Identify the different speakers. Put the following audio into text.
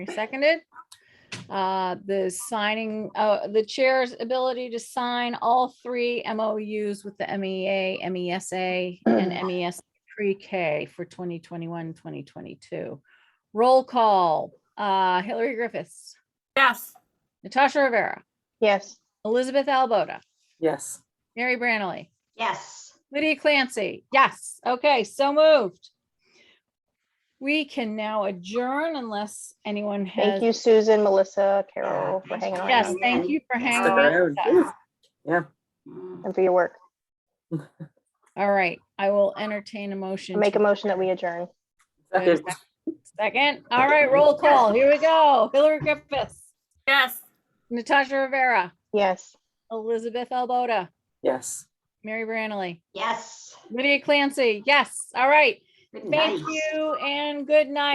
Speaker 1: Seconded. Uh, The signing, uh, the chair's ability to sign all three MOUs with the E MEA, MESA, and E MES pre-K for 2021, 2022. Roll call, uh, Hillary Griffiths,
Speaker 2: Yes.
Speaker 1: Natasha Rivera,
Speaker 3: Yes.
Speaker 1: Elizabeth Albota,
Speaker 2: Yes.
Speaker 1: Mary Brannely,
Speaker 3: Yes.
Speaker 1: Lydia Clancy, yes, okay, so moved. We can now adjourn unless anyone has,
Speaker 3: Thank you, Susan, Melissa, Carol, for hanging on.
Speaker 1: yes, thank you for hanging.
Speaker 2: around,
Speaker 1: with us.
Speaker 3: And for your work.
Speaker 1: All right, I will entertain a motion.
Speaker 3: Make
Speaker 1: to
Speaker 3: a motion that we adjourn.
Speaker 1: Wait a sec- Second, all right, roll call, here we go. Hillary Griffiths,
Speaker 2: Yes.
Speaker 1: Natasha Rivera,
Speaker 3: Yes.
Speaker 1: Elizabeth Albota,
Speaker 4: Yes.
Speaker 1: Mary Brannely,
Speaker 5: Yes.
Speaker 1: Lydia Clancy, yes, all right.
Speaker 5: Good
Speaker 1: Thank
Speaker 5: night.
Speaker 1: you and good night.